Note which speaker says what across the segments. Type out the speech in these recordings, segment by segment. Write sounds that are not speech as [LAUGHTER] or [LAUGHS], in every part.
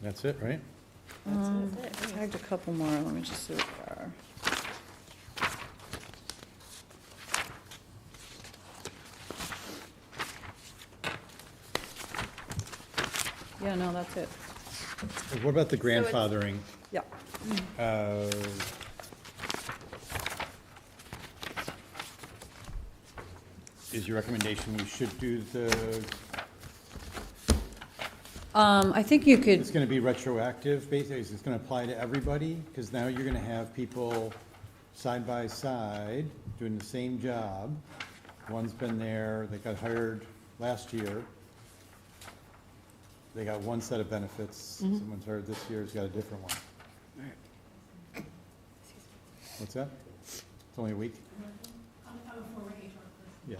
Speaker 1: That's it, right?
Speaker 2: Um,
Speaker 3: That's it,
Speaker 2: I had a couple more, let me just see what they are. Yeah, no, that's it.
Speaker 1: What about the
Speaker 3: it's-
Speaker 1: grandfathering?
Speaker 2: Yeah,
Speaker 1: Uh, Is your recommendation we should do the,
Speaker 2: um, I think you
Speaker 1: it's
Speaker 2: could,
Speaker 1: gonna be retroactive, basically, it's gonna apply to everybody? Because now you're gonna have people side by side, doing the same job. One's been there, they got hired last year. They got one set of benefits, someone's hired this year, has got a different one. What's that? It's only a week? I'm, I'm a former HR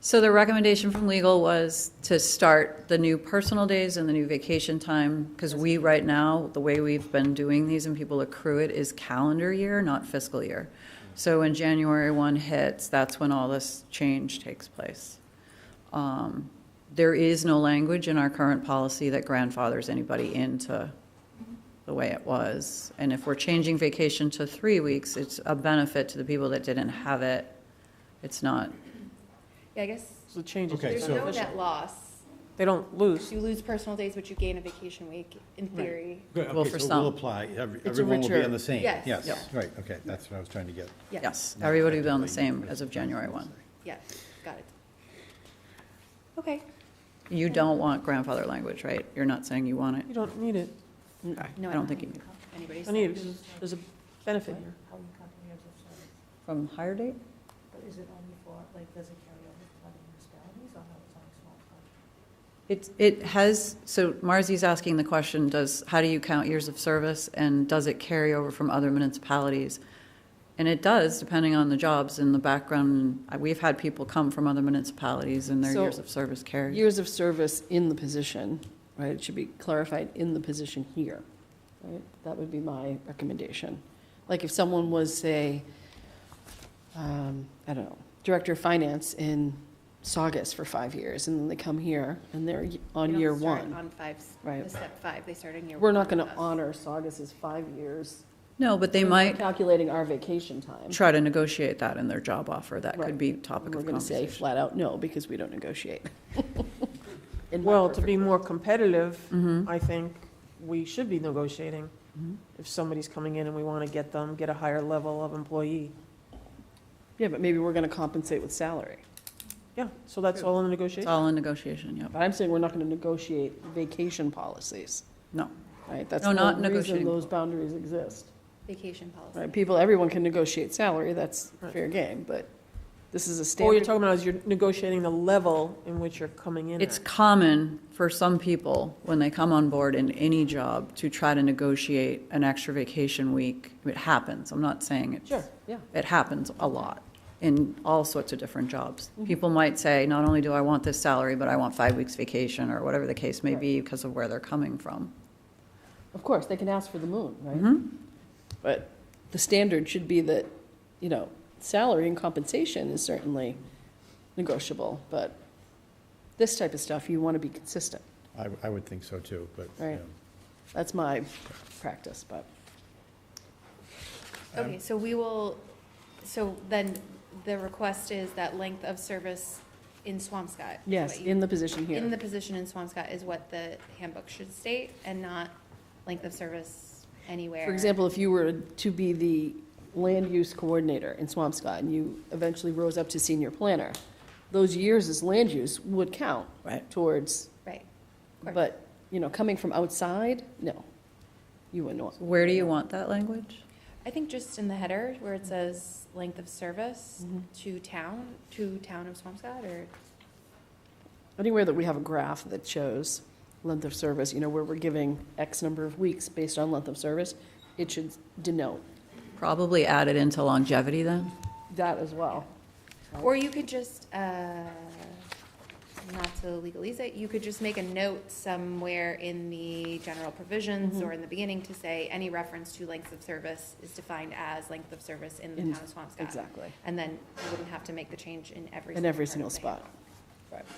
Speaker 2: so the recommendation from legal was to start the new personal days and the new vacation time, because we, right now, the way we've been doing these and people accrue it is calendar year, not fiscal year. So when January one hits, that's when all this change takes place. Um, There is no language in our current policy that grandfathers anybody into the way it was. And if we're changing vacation to three weeks, it's a benefit to the people that didn't have it. It's not,
Speaker 3: Yeah, I guess
Speaker 4: So the change is
Speaker 1: Okay,
Speaker 3: there's
Speaker 1: so-
Speaker 3: no
Speaker 4: beneficial.
Speaker 3: net loss.
Speaker 4: They don't lose.
Speaker 3: You lose personal days, but you gain a vacation week in theory.
Speaker 1: Good,
Speaker 2: Well,
Speaker 1: okay,
Speaker 2: for
Speaker 1: so
Speaker 2: some.
Speaker 1: we'll apply, Every-
Speaker 4: a
Speaker 1: everyone will be
Speaker 4: richer-
Speaker 1: on the same.
Speaker 3: Yes.
Speaker 2: Yep.
Speaker 1: Yes, right, okay, that's what I was trying to get.
Speaker 2: yes, everybody will be on the same as of January one.
Speaker 3: Yes, got it. Okay,
Speaker 2: You don't want grandfather language, right? You're not saying you want it?
Speaker 4: You don't need it.
Speaker 3: no,
Speaker 2: I don't think you do.
Speaker 3: anybody
Speaker 4: You don't need it
Speaker 3: said.
Speaker 4: 'cause there's a benefit here.
Speaker 5: How you comprehend of service,
Speaker 2: From higher date?
Speaker 5: but is it only for, like, does it carry over to other municipalities, or no, it's only small towns?
Speaker 2: It, it has, so Marzi's asking the question, does, how do you count years of service? And does it carry over from other municipalities? And it does, depending on the jobs and the background. Uh, We've had people come from other municipalities and their
Speaker 6: So-
Speaker 2: years of service carry.
Speaker 6: Years of service in the position, right, it should be clarified in the position here, right? That would be my recommendation. Like if someone was, say, um, I don't know, Director of Finance in Saugus for five years, and then they come here, and they're y-
Speaker 3: They
Speaker 6: on
Speaker 3: don't
Speaker 6: year
Speaker 3: start
Speaker 6: one.
Speaker 3: On five, s-
Speaker 6: Right.
Speaker 3: the step five, they start in year one.
Speaker 6: We're not gonna
Speaker 3: with us.
Speaker 6: honor Saugus's five years.
Speaker 2: No, but they might
Speaker 6: Calculating our vacation time.
Speaker 2: try to negotiate that in their job offer. That could
Speaker 6: Right.
Speaker 2: be topic
Speaker 6: We're
Speaker 2: of
Speaker 6: gonna say
Speaker 2: conversation.
Speaker 6: flat out no, because we don't negotiate. [LAUGHS] In my
Speaker 4: Well, to be
Speaker 6: perfect
Speaker 4: more
Speaker 6: world.
Speaker 4: competitive,
Speaker 2: Mhm.
Speaker 4: I think we should be negotiating.
Speaker 6: Mhm.
Speaker 4: If somebody's coming in and we want to get them, get a higher level of employee.
Speaker 6: Yeah, but maybe we're gonna compensate with salary.
Speaker 4: Yeah, so that's all in the
Speaker 2: It's
Speaker 4: negotiation.
Speaker 2: all in negotiation, yep.
Speaker 6: But I'm saying we're not going to negotiate vacation policies,
Speaker 2: No.
Speaker 6: right? That's
Speaker 2: No,
Speaker 6: the
Speaker 2: not
Speaker 6: whole reason
Speaker 2: negotiating.
Speaker 6: those boundaries exist,
Speaker 3: Vacation policy.
Speaker 6: right? People, everyone can negotiate salary, that's
Speaker 4: Right.
Speaker 6: fair game, but this is a
Speaker 4: All you're
Speaker 6: standard.
Speaker 4: talking about is you're negotiating the level in which you're coming in
Speaker 2: It's
Speaker 4: at.
Speaker 2: common for some people, when they come on board in any job, to try to negotiate an extra vacation week. It happens, I'm not saying it's.
Speaker 4: Sure,
Speaker 6: yeah.
Speaker 2: It happens a lot in all sorts of different jobs.
Speaker 4: Mm-hmm.
Speaker 2: People might say, not only do I want this salary, but I want five weeks vacation, or whatever the case may be, because of where they're coming from.
Speaker 6: Of course, they can ask for the moon, right?
Speaker 2: Mm-hmm.
Speaker 6: But the standard should be that, you know, salary and compensation is certainly negotiable, but this type of stuff, you want to be consistent.
Speaker 1: I, I would think so too, but.
Speaker 6: Right.
Speaker 1: you know.
Speaker 6: That's my practice, but.
Speaker 3: Okay, so we will, so then the request is that length of service in Swampscott. is
Speaker 6: Yes,
Speaker 3: what you-
Speaker 6: in the position here.
Speaker 3: In the position in Swampscott is what the handbook should state and not length of service anywhere.
Speaker 6: For example, if you were to be the land use coordinator in Swampscott and you eventually rose up to senior planner, those years as land use would count
Speaker 2: Right.
Speaker 6: towards,
Speaker 3: Right. Correct.
Speaker 6: but, you know, coming from outside, no, you wouldn't want.
Speaker 2: Where do you want that language?
Speaker 3: I think just in the header where
Speaker 6: Mm-hmm.
Speaker 3: it says length of service to town, to town of Swampscott or,
Speaker 6: Anywhere that we have a graph that shows length of service, you know, where we're giving X number of weeks based on length of service, it should denote
Speaker 2: Probably add it into longevity then?
Speaker 6: that as well. Oh.
Speaker 3: or you could just, uh, not to legalize it, you could just make a note somewhere in the general provisions
Speaker 6: Mm-hmm.
Speaker 3: or in the beginning to say any reference to lengths of service is defined as length of service in the
Speaker 6: In-
Speaker 3: town of Swampscott.
Speaker 6: Exactly.
Speaker 3: And then you wouldn't have to make the change in every.
Speaker 6: In every
Speaker 3: part
Speaker 6: single
Speaker 3: of the
Speaker 6: spot.
Speaker 3: handbook.